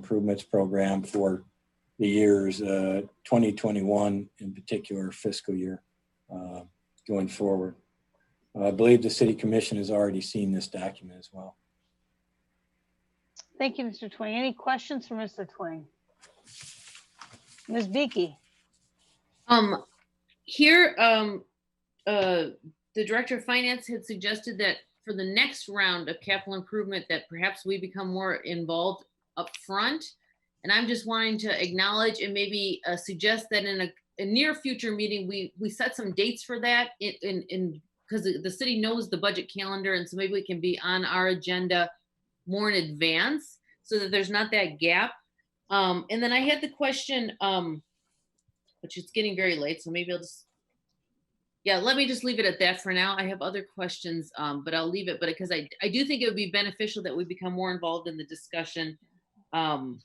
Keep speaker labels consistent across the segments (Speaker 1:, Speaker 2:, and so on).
Speaker 1: improvements program for the years uh, 2021 in particular fiscal year uh, going forward. I believe the city commission has already seen this document as well.
Speaker 2: Thank you, Mr. Twing. Any questions for Mr. Twing? Ms. Beaky?
Speaker 3: Um, here, um, uh, the director of finance had suggested that for the next round of capital improvement, that perhaps we become more involved upfront. And I'm just wanting to acknowledge and maybe, uh, suggest that in a, a near future meeting, we, we set some dates for that in, in, in, because the, the city knows the budget calendar, and so maybe we can be on our agenda more in advance, so that there's not that gap. Um, and then I had the question, um, which it's getting very late, so maybe I'll just. Yeah, let me just leave it at that for now. I have other questions, um, but I'll leave it, but because I, I do think it would be beneficial that we become more involved in the discussion. Um,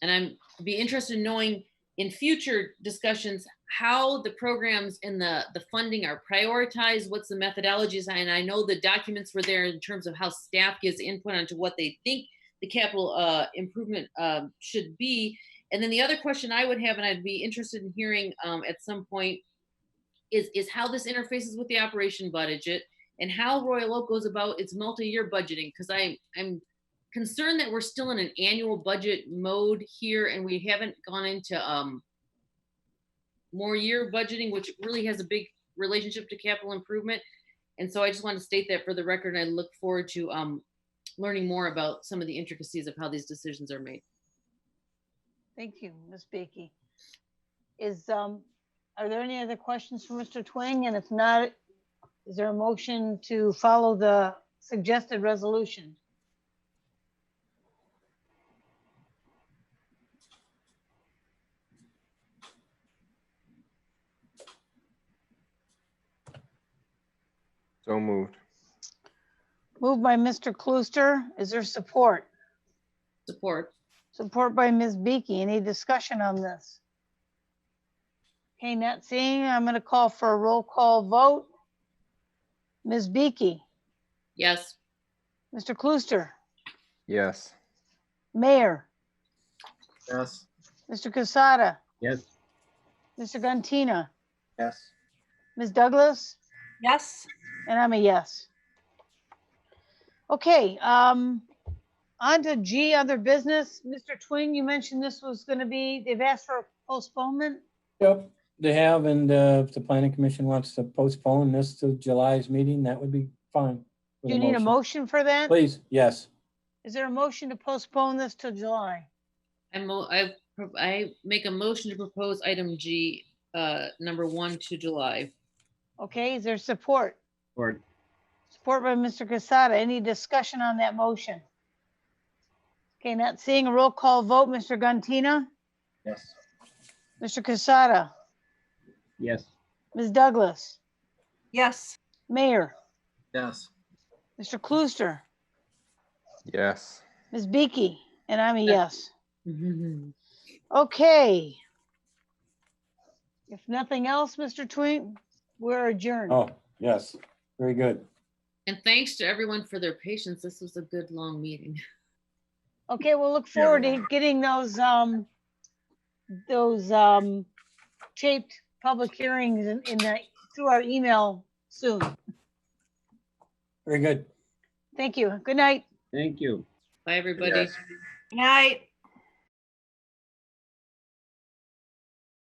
Speaker 3: and I'm, be interested in knowing in future discussions, how the programs and the, the funding are prioritized, what's the methodologies, and I know the documents were there in terms of how staff gives input onto what they think the capital, uh, improvement, uh, should be. And then the other question I would have, and I'd be interested in hearing um, at some point, is is how this interfaces with the operation budget and how Royal Oak goes about its multi-year budgeting. Because I I'm concerned that we're still in an annual budget mode here, and we haven't gone into um, more year budgeting, which really has a big relationship to capital improvement. And so I just want to state that for the record, and I look forward to um, learning more about some of the intricacies of how these decisions are made.
Speaker 2: Thank you, Ms. Beaky. Is, um, are there any other questions for Mr. Twing? And if not, is there a motion to follow the suggested resolution?
Speaker 4: So moved.
Speaker 2: Moved by Mr. Klooster. Is there support?
Speaker 3: Support.
Speaker 2: Support by Ms. Beaky. Any discussion on this? Okay, not seeing, I'm gonna call for a roll call vote. Ms. Beaky,
Speaker 3: Yes.
Speaker 2: Mr. Klooster,
Speaker 4: Yes.
Speaker 2: Mayor,
Speaker 4: Yes.
Speaker 2: Mr. Casada,
Speaker 4: Yes.
Speaker 2: Mr. Gantino,
Speaker 4: Yes.
Speaker 2: Ms. Douglas,
Speaker 5: Yes,
Speaker 2: and I'm a yes. Okay, um, on to G, other business. Mr. Twing, you mentioned this was gonna be, they've asked for a postponement.
Speaker 1: Yep, they have, and uh, if the planning commission wants to postpone this to July's meeting, that would be fine. with
Speaker 2: Do you need a motion for that?
Speaker 1: Please, yes.
Speaker 2: Is there a motion to postpone this till July?
Speaker 3: I mo- I, pro- I make a motion to propose item G, uh, number one to July.
Speaker 2: Okay, is there support?
Speaker 4: Or
Speaker 2: Support by Mr. Casada. Any discussion on that motion? Okay, not seeing a roll call vote. Mr. Gantino,
Speaker 4: Yes.
Speaker 2: Mr. Casada,
Speaker 4: Yes.
Speaker 2: Ms. Douglas,
Speaker 5: yes,
Speaker 2: Mayor,
Speaker 4: Yes.
Speaker 2: Mr. Klooster,
Speaker 4: Yes.
Speaker 2: Ms. Beaky, and I'm a yes.
Speaker 3: Mhm.
Speaker 2: Okay. If nothing else, Mr. Twing, we're adjourned.
Speaker 1: Oh, yes, very good.
Speaker 3: And thanks to everyone for their patience. This was a good, long meeting.
Speaker 2: Okay, we'll look forward to getting those, um, those, um, taped public hearings in, in the, through our email soon.
Speaker 1: Very good.
Speaker 2: Thank you. Good night.
Speaker 6: Thank you.
Speaker 3: Bye, everybody.
Speaker 4: Yes.
Speaker 5: good night.